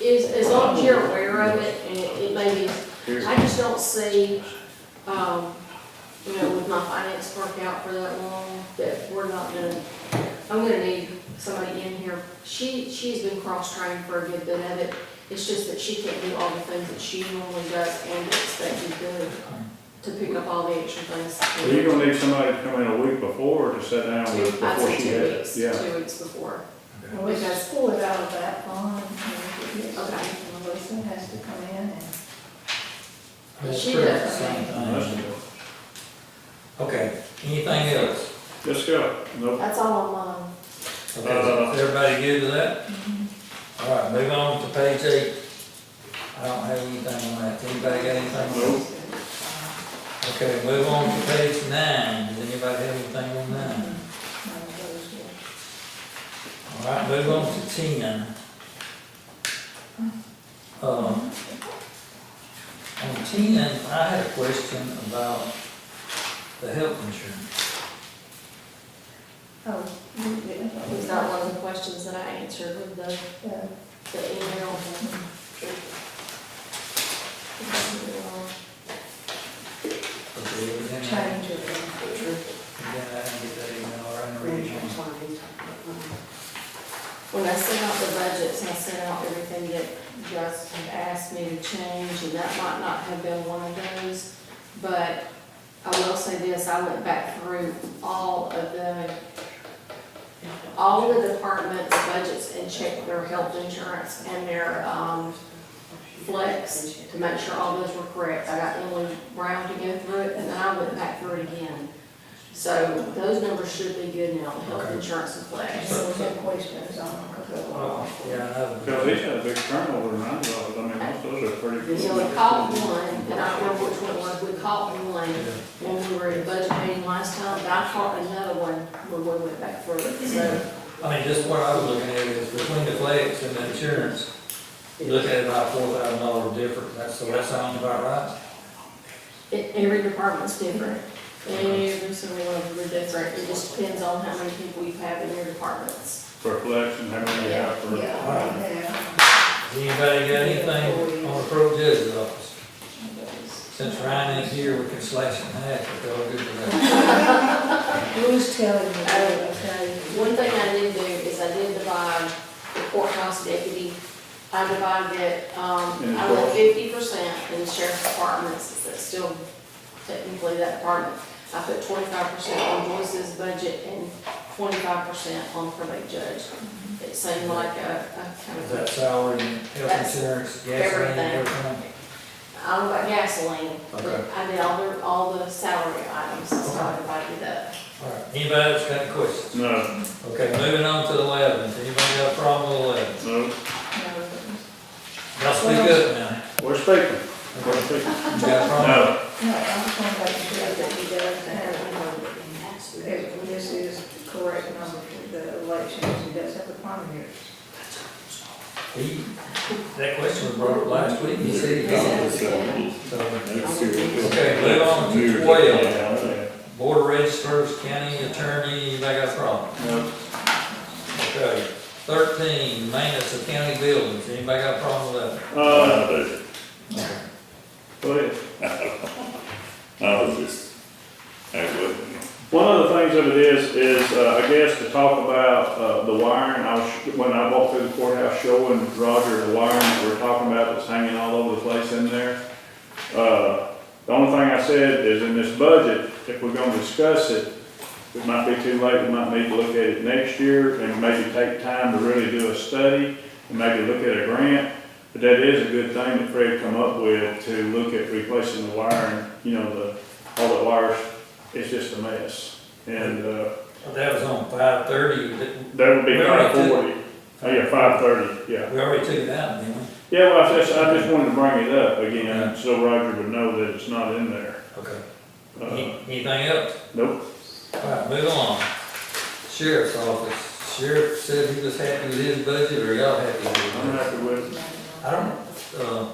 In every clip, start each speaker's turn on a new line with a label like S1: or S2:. S1: is, as long as you're aware of it, and it it may be, I just don't see, um, you know, with my finance work out for that long, that we're not gonna, I'm gonna need somebody in here. She, she's been cross-trained for a good bit of it, it's just that she can't do all the things that she normally does and expected to, to pick up all the extra things.
S2: So you're gonna need somebody to come in a week before to sit down with,
S1: I'd
S2: before
S1: say
S2: she
S1: two
S2: has,
S1: weeks,
S2: yeah.
S1: two weeks before.
S3: Well, we just pull it out of that bond, and if it is,
S1: Okay.
S3: Melissa has to come in and.
S1: She
S4: pretty
S1: does.
S4: much the same
S2: That's-
S4: thing. Okay, anything else?
S2: Let's go. No,
S3: That's all on loan.
S4: Okay,
S2: Uh,
S4: is everybody good with that? All right, move on to page eight. I don't have anything on that, anybody got anything? on
S2: no,
S4: that? Okay, move on to page nine, does anybody have anything on
S3: Mm-hmm.
S4: nine? All right, move on to ten. Um, on ten, I had a question about the health insurance.
S3: Oh, you did, Uh, I thought we
S1: Was
S3: got
S1: that one of the questions that I answered with the,
S3: the-
S1: the email?
S4: Okay, everything-
S3: change of
S4: Then I didn't get that email, or I didn't read it.
S1: When I sent out the budgets, I sent out everything that Justin asked me to change, and that might not have been one of those. But I will say this, I went back through all of the, all of the departments' budgets and checked their health insurance and their, um, flex to make sure all those were correct. I got Emily Brown to go through it, and then I went back through it again. So those numbers should be good now, health
S4: Okay.
S1: insurance and
S3: the,
S1: flex.
S3: so we have questions on a couple of
S4: Oh, yeah, I know.
S2: because he's had a big turnover in our office, I mean, most of those are pretty good.
S1: So we caught one, and I don't remember which one it was, we caught one when we were in budget meeting last time, but I caught another one when we went back through it, so.
S4: I mean, just what I was looking at is between the flex and the insurance, you look at about four thousand dollar difference, that's, so that sounds about right.
S1: It, every department's different, every single one of them are different, it just depends on how many people you have in your departments.
S2: For collection, how many you have
S3: Yeah,
S2: for,
S3: yeah.
S4: Has Anybody got anything on the pro judge's office? Since Ryan is here, we can slash it in half, if they're all good for that.
S3: Who's telling me, okay,
S1: One thing I did do is I did divide the courthouse deputy, I divided it, um,
S2: And
S1: I
S2: the
S1: went
S2: court-
S1: fifty percent in the sheriff's department, since that's still technically that department. I put twenty-five percent on Joyce's budget and twenty-five percent on probate judge. It seemed like a, a kind
S4: Is
S1: of.
S4: that salary and health
S1: That's
S4: insurance, gasoline,
S1: everything.
S4: everything?
S1: I don't know about gasoline, but
S4: Okay.
S1: I did all the, all the salary items, so I divided it up.
S4: All right, anybody else got any questions?
S2: no,
S4: Okay, moving on to eleven, anybody got a problem with eleven?
S2: no,
S3: no,
S4: Y'all speak up now.
S2: we're speaking, we're speaking.
S4: You got a problem?
S2: No,
S3: no, I'm talking about the deal that he does have, if this is the correct number for the elections, he does have the primary.
S4: He, that question was brought up last week, he said he called. So, Okay, move on to twelve,
S2: yeah,
S4: board of registrars, county attorney, anybody got a problem?
S2: no,
S4: Okay, thirteen, maintenance of county buildings, anybody got a problem with
S2: uh,
S4: that?
S2: go ahead.
S5: I was just, that wasn't.
S2: One of the things of it is, is, uh, I guess to talk about, uh, the wiring, I was, when I walked through the courthouse showing Roger the wiring that we're talking about that's hanging all over the place in there. Uh, the only thing I said is in this budget, if we're gonna discuss it, it might be too late, we might need to look at it next year and maybe take time to really do a study and maybe look at a grant. But that is a good thing that Fred come up with to look at replacing the wiring, you know, the, all the wires it's just a mess. And, uh,
S4: That was on five thirty, we
S2: that would be
S4: We already
S2: five
S4: did-
S2: forty, oh yeah, five thirty, yeah.
S4: already took it out, didn't we?
S2: Yeah, well, I just, I just wanted to bring it up again, so Roger would know that it's not in there.
S4: Okay,
S2: Uh,
S4: Any- anything else?
S2: nope,
S4: All right, move on. Sheriff's office, sheriff said he was happy with his budget, or y'all happy
S2: I'm
S4: with it?
S2: happy with it.
S4: I don't, uh,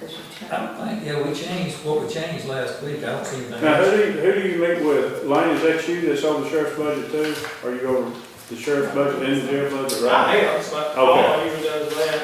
S3: Because you
S4: I don't think, yeah, we changed, what we changed last week, I don't see anything.
S2: Now, who do you, who do you meet with? Lane, is that you that's on the sheriff's budget too? Are you over the sheriff's budget and the jail budget, right?
S6: I am, it's my, oh, I even done